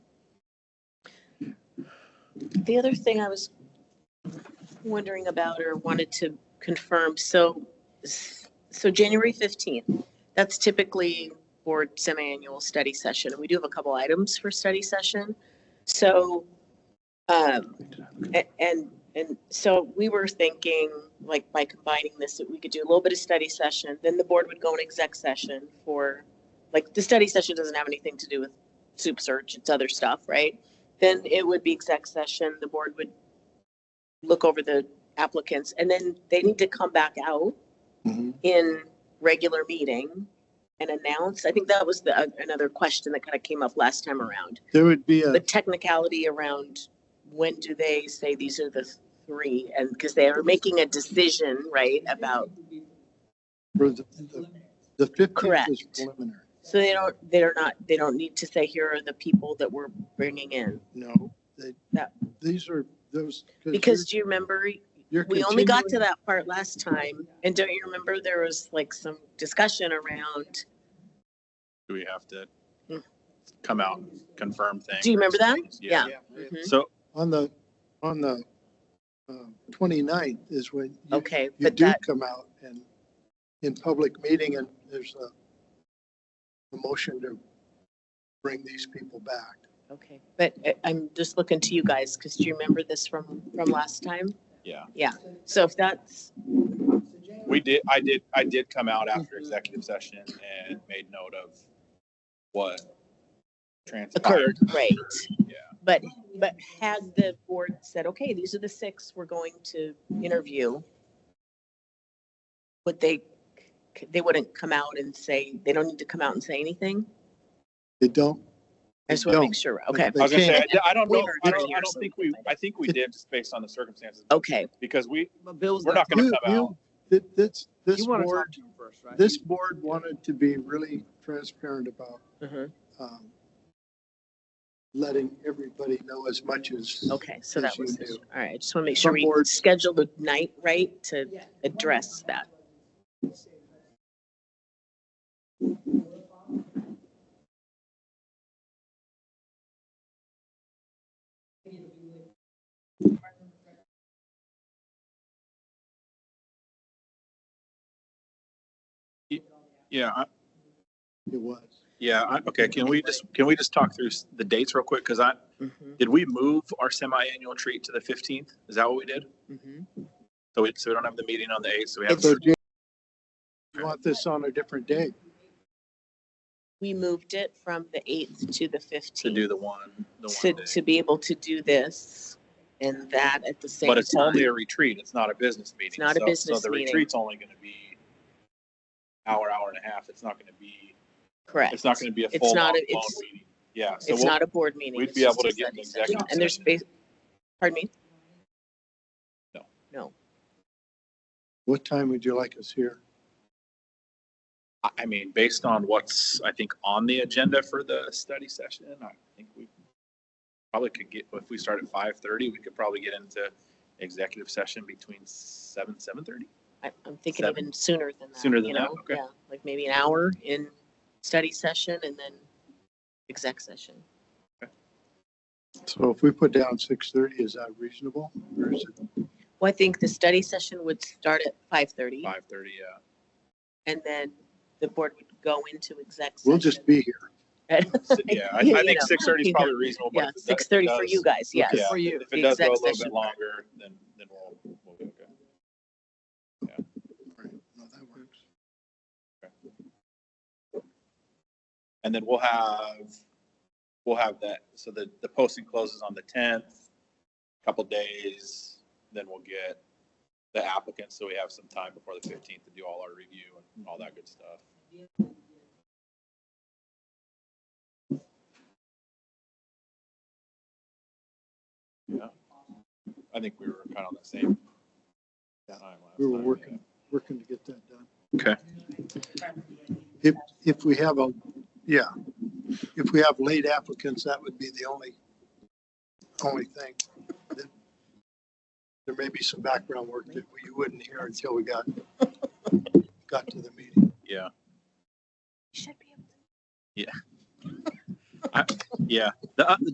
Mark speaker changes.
Speaker 1: The other thing I was wondering about or wanted to confirm, so, so January 15th, that's typically board semi-annual study session. and We do have a couple items for study session. So, um, a- and, and so we were thinking, like, by combining this, that we could do a little bit of study session, then the board would go in exec session for, like, the study session doesn't have anything to do with soup search, it's other stuff, right? Then it would be exec session, the board would look over the applicants, and then they need to come back out
Speaker 2: Mhm.
Speaker 1: in regular meeting and announce. I think that was the, uh, another question that kind of came up last time around.
Speaker 2: There would be
Speaker 1: The
Speaker 2: a,
Speaker 1: technicality around when do they say these are the three, and, because they are making a decision, right, about,
Speaker 2: for the, the fifteenth is
Speaker 1: Correct.
Speaker 2: preliminary.
Speaker 1: so they don't, they're not, they don't need to say, here are the people that we're bringing in.
Speaker 2: No, they,
Speaker 1: That-
Speaker 2: these are, those.
Speaker 1: Because do you remember,
Speaker 2: you're- you're
Speaker 1: we only got to
Speaker 2: continuing-
Speaker 1: that part last time, and don't you remember there was like some discussion around,
Speaker 3: Do we have to
Speaker 1: Hmm.
Speaker 3: come out and confirm things?
Speaker 1: do you remember that?
Speaker 3: Yeah.
Speaker 1: Mhm.
Speaker 3: So,
Speaker 2: On the, on the uh, twenty-ninth is when you-
Speaker 1: Okay,
Speaker 2: you
Speaker 1: but
Speaker 2: do
Speaker 1: that,
Speaker 2: come out and in public meeting and there's a, a motion to bring these people back.
Speaker 1: okay, but I- I'm just looking to you guys, because do you remember this from, from last time?
Speaker 3: yeah,
Speaker 1: So if that's,
Speaker 3: we did, I did, I did come out after executive session and made note of what transpired.
Speaker 1: occurred, right?
Speaker 3: Yeah.
Speaker 1: But, but had the board said, okay, these are the six we're going to interview, would they, they wouldn't come out and say, they don't need to come out and say anything?
Speaker 2: They don't,
Speaker 1: I just want to
Speaker 2: They
Speaker 1: make sure, okay,
Speaker 2: They-
Speaker 3: I was gonna say, I
Speaker 1: Okay.
Speaker 3: I don't
Speaker 1: We
Speaker 3: know,
Speaker 1: heard
Speaker 3: I
Speaker 1: it
Speaker 3: don't, I
Speaker 1: here,
Speaker 3: don't
Speaker 1: so-
Speaker 3: think we, I think we did just based on the circumstances,
Speaker 1: okay,
Speaker 3: because we,
Speaker 4: But Bill's.
Speaker 3: we're not gonna
Speaker 2: You-
Speaker 3: come out.
Speaker 2: you- thi- this, this
Speaker 4: You want to talk
Speaker 2: board,
Speaker 4: to him first, right?
Speaker 2: this board wanted to be really transparent about
Speaker 1: mhm,
Speaker 2: um, letting everybody know as much as.
Speaker 1: okay, so that
Speaker 2: Yes, you
Speaker 1: was,
Speaker 2: do.
Speaker 1: all right, I just want to make sure
Speaker 2: Some
Speaker 1: we
Speaker 2: boards-
Speaker 1: schedule the night, right, to address that.
Speaker 3: Yeah, I-
Speaker 2: It was.
Speaker 3: yeah, I- okay, can we just, can we just talk through s- the dates real quick? Because I,
Speaker 2: Mm-hmm,
Speaker 1: Mhm,
Speaker 3: did we move our semi-annual treat to the fifteenth? Is that what we did?
Speaker 2: mm-hmm.
Speaker 1: mhm.
Speaker 3: So we, so we don't have the meeting on the eighth, so we have.
Speaker 2: So do you you want this on a different day?
Speaker 1: we moved it from the 8th to the
Speaker 3: to do
Speaker 1: 15th
Speaker 3: the one, the
Speaker 1: to,
Speaker 3: one day.
Speaker 1: to be able to do this and that at the same
Speaker 3: But it's only
Speaker 1: time.
Speaker 3: a retreat. It's not a business meeting.
Speaker 1: not a
Speaker 3: So-
Speaker 1: business
Speaker 3: So the
Speaker 1: meeting.
Speaker 3: retreat's only going to be hour, hour and a half. It's not going to be,
Speaker 1: Correct.
Speaker 3: it's not going to be a
Speaker 1: It's
Speaker 3: full
Speaker 1: not
Speaker 3: long
Speaker 1: a-
Speaker 3: long
Speaker 1: it's-
Speaker 3: meeting. Yeah. So
Speaker 1: It's
Speaker 3: we'll,
Speaker 1: not a board meeting.
Speaker 3: we'd
Speaker 1: it's
Speaker 3: be
Speaker 1: just
Speaker 3: able
Speaker 1: a
Speaker 3: to get an
Speaker 1: study session.
Speaker 3: executive
Speaker 1: And there's,
Speaker 3: session.
Speaker 1: bas- pardon me?
Speaker 3: No.
Speaker 1: No.
Speaker 2: What time would you like us here?
Speaker 3: I- I mean, based on what's, I think, on the agenda for the study session, I think we probably could get, if we start at five thirty, we could probably get into executive session between seven, seven thirty.
Speaker 1: I- I'm thinking
Speaker 3: Seven.
Speaker 1: even sooner than that.
Speaker 3: Sooner than
Speaker 1: you
Speaker 3: that,
Speaker 1: know?
Speaker 3: okay.
Speaker 1: Yeah, Like maybe an hour in study session and then exec session.
Speaker 2: So if we put down six thirty, is that reasonable? Or is it,
Speaker 1: Well, I think the study session would start at 5:30
Speaker 3: Five thirty, yeah.
Speaker 1: and then the board would go into exec session.
Speaker 2: we'll just be here.
Speaker 3: S- Yeah, I,
Speaker 1: You
Speaker 3: I think
Speaker 1: know,
Speaker 3: six thirty is
Speaker 1: either-
Speaker 3: probably reasonable. but
Speaker 1: Yeah,
Speaker 3: if it does-
Speaker 1: 6:30 for
Speaker 3: does-
Speaker 1: you guys, yes.
Speaker 3: Yeah,
Speaker 4: For you.
Speaker 3: If it does
Speaker 1: The exec
Speaker 3: go a little bit
Speaker 1: session
Speaker 3: longer, then, then we'll, we'll be okay.
Speaker 2: Right, no, that works.
Speaker 3: And then we'll have, we'll have that, so the, the posting closes on the tenth, couple days, then we'll get the applicants, so we have some time before the fifteenth to do all our review and all that good stuff. Yeah, I think we were kind of on the same
Speaker 2: Yeah,
Speaker 3: time last
Speaker 2: we were
Speaker 3: time,
Speaker 2: working.
Speaker 3: yeah.
Speaker 2: Working to get that done.
Speaker 3: Okay.
Speaker 2: If, if we have a, yeah, if we have late applicants, that would be the only, only thing. that- There may be some background work that you wouldn't hear until we got, got to the meeting.
Speaker 3: Yeah,
Speaker 1: You should be able to
Speaker 3: yeah. The, uh,